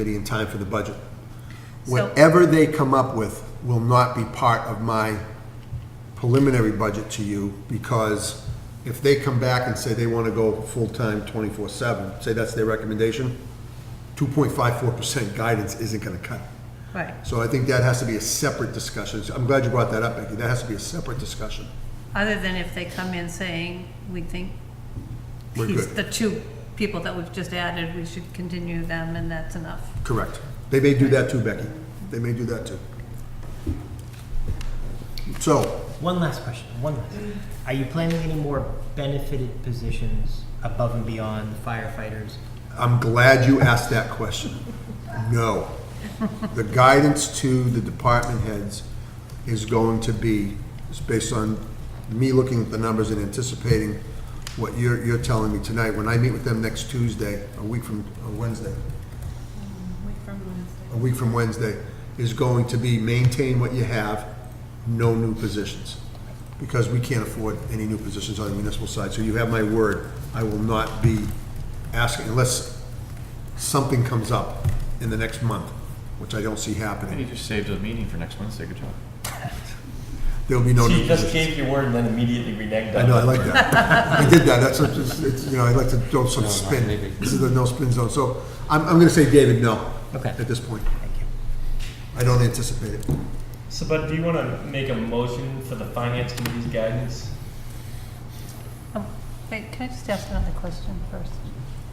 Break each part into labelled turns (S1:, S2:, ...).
S1: committee in time for the budget.
S2: So-
S1: Whatever they come up with will not be part of my preliminary budget to you, because if they come back and say they want to go full-time twenty-four seven, say that's their recommendation, two point five four percent guidance isn't going to cut it.
S2: Right.
S1: So I think that has to be a separate discussion. So I'm glad you brought that up, Becky. That has to be a separate discussion.
S2: Other than if they come in saying, we think
S1: We're
S2: these-
S1: good.
S2: the two people that we've just added, we should continue them and that's enough.
S1: Correct. They may do that too, Becky. They may do that too. So,
S3: One last question, one last. Are you planning any more benefited positions above and beyond the firefighters?
S1: I'm glad you asked that question. No. The guidance to the department heads is going to be, is based on me looking at the numbers and anticipating what you're, you're telling me tonight. When I meet with them next Tuesday, a week from, uh, Wednesday. A week from Wednesday is going to be maintain what you have, no new positions. Because we can't afford any new positions on the municipal side. So you have my word, I will not be asking, unless something comes up in the next month, which I don't see
S4: And you
S1: happening.
S4: just saved a meeting for next Wednesday, good job.
S1: There'll be no
S5: So
S1: new
S5: you just
S1: positions.
S5: gave your word and then immediately reneged on it.
S1: I know, I like that. I did that, that's, what- it's, it's, you know, I like to throw some spin. This is the no spin zone, so I'm, I'm gonna say David, no.
S3: Okay.
S1: At this point. I don't anticipate it.
S5: So, Bud, do you want to make a motion for the finance committee's guidance?
S2: Um, Wait, can I just ask another question first?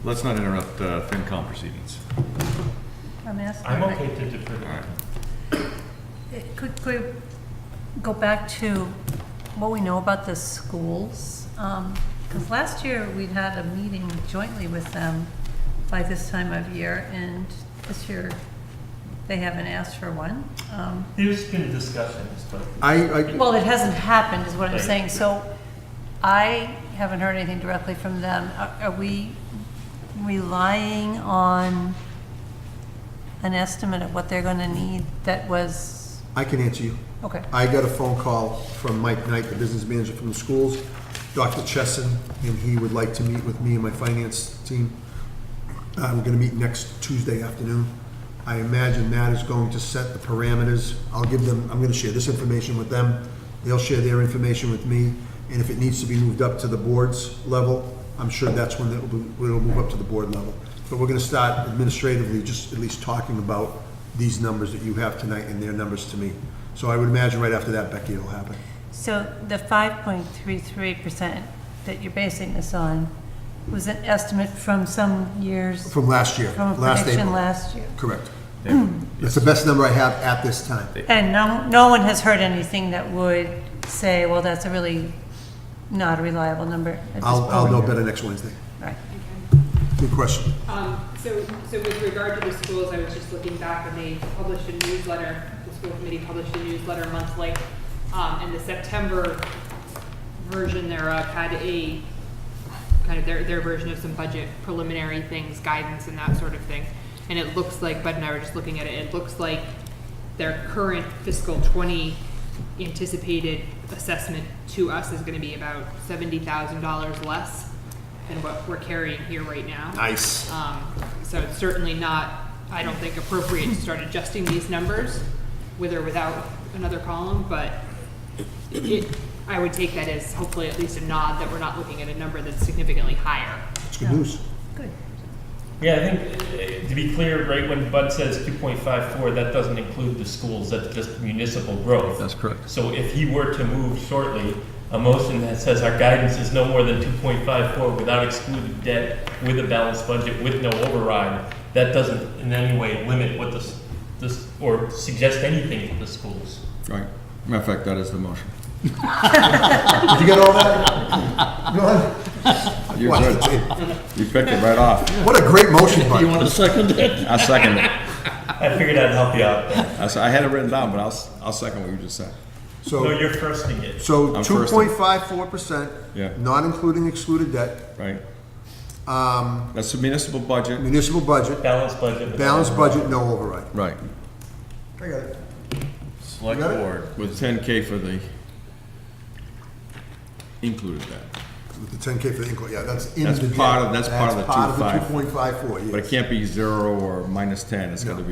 S4: Let's not interrupt uh, FinCom proceedings.
S2: I'm asking.
S5: I'm okay to defer.
S4: All right.
S2: Could we go back to what we know about the schools? Because last year, we'd had a meeting jointly with them by this time of year, and this year, they haven't asked for one. Um,
S5: There's been discussions, but
S1: I, I,
S2: Well, it hasn't happened, is what I'm
S5: Right.
S2: saying, so I haven't heard anything directly from them. Are- Are we relying on an estimate of what they're going to need that was,
S1: I can answer you.
S2: okay,
S1: I got a phone call from Mike Knight, the business manager from the schools, Dr. Chesson, and he would like to meet with me and my finance team. Uh, we're gonna meet next Tuesday afternoon. I imagine Matt is going to set the parameters. I'll give them, I'm gonna share this information with them. They'll share their information with me, and if it needs to be moved up to the board's level, I'm sure that's when it'll, be- it'll move up to the board level. But we're gonna start administratively, just at least talking about these numbers that you have tonight and their numbers to me. So I would imagine right after that, Becky, it'll happen.
S2: so the 5.33% that you're basing this on was an estimate from some years,
S1: From last year,
S2: from a
S1: last
S2: prediction
S1: April.
S2: last year?
S1: Correct.
S4: Yeah.
S1: That's the best number I have at this time.
S2: And no, no one has heard anything that would say, well, that's a really not a reliable number at this
S1: I'll, I'll know
S2: point."
S1: better next Wednesday.
S2: Right.
S1: Good question.
S6: Um, So, so with regard to the schools, I was just looking back when they published a newsletter, the school committee published a newsletter monthly, um, and the September version thereof had a, kind of their, their version of some budget preliminary things, guidance and that sort of thing. And it looks like, Bud and I were just looking at it, it looks like their current fiscal twenty anticipated assessment to us is gonna be about seventy thousand dollars less than what we're carrying here right now.
S1: Nice.
S6: Um, So it's certainly not, I don't think appropriate to start adjusting these numbers with or without another column, but it, I would take that as hopefully at least a nod that we're not looking at a number that's significantly higher.
S1: It's good news.
S2: Good.
S5: yeah, I think uh, to be clear, right when Bud says 2.54, that doesn't include the schools. That's just municipal growth.
S4: That's correct.
S5: So if he were to move shortly, a motion that says our guidance is no more than two point five four without excluded debt, with a balanced budget, with no override, that doesn't in any way limit what this, this, or suggest anything to the schools.
S4: Right. Matter of fact, that is the motion.
S1: Did you get all that? Go
S4: You
S1: ahead.
S4: did. You picked it right off.
S1: What a great motion, Mike.
S4: to second it? I second it.
S5: I figured I'd help you out.
S4: I s- I had it written down, but I'll, s- I'll second what you just said.
S5: No,
S1: So,
S5: you're firsting it.
S1: so
S4: I'm
S1: two
S4: first.
S1: point five four percent,
S4: Yeah.
S1: not including excluded debt,
S4: Right? Um. That's the municipal budget.
S1: municipal budget,
S5: Balanced budget. with-
S1: balanced budget, no override.
S4: Right.
S1: I got it.
S4: Select
S1: You got it?
S4: With ten K for the included that.
S1: with the ten K for the in-court, yeah, that's in the.
S4: That's part of-
S1: jet.
S4: that's part of the
S1: That's part of the
S4: 2.5.
S1: two point five four, yes.
S4: But it can't be zero or minus ten, it's gotta
S1: No.
S4: be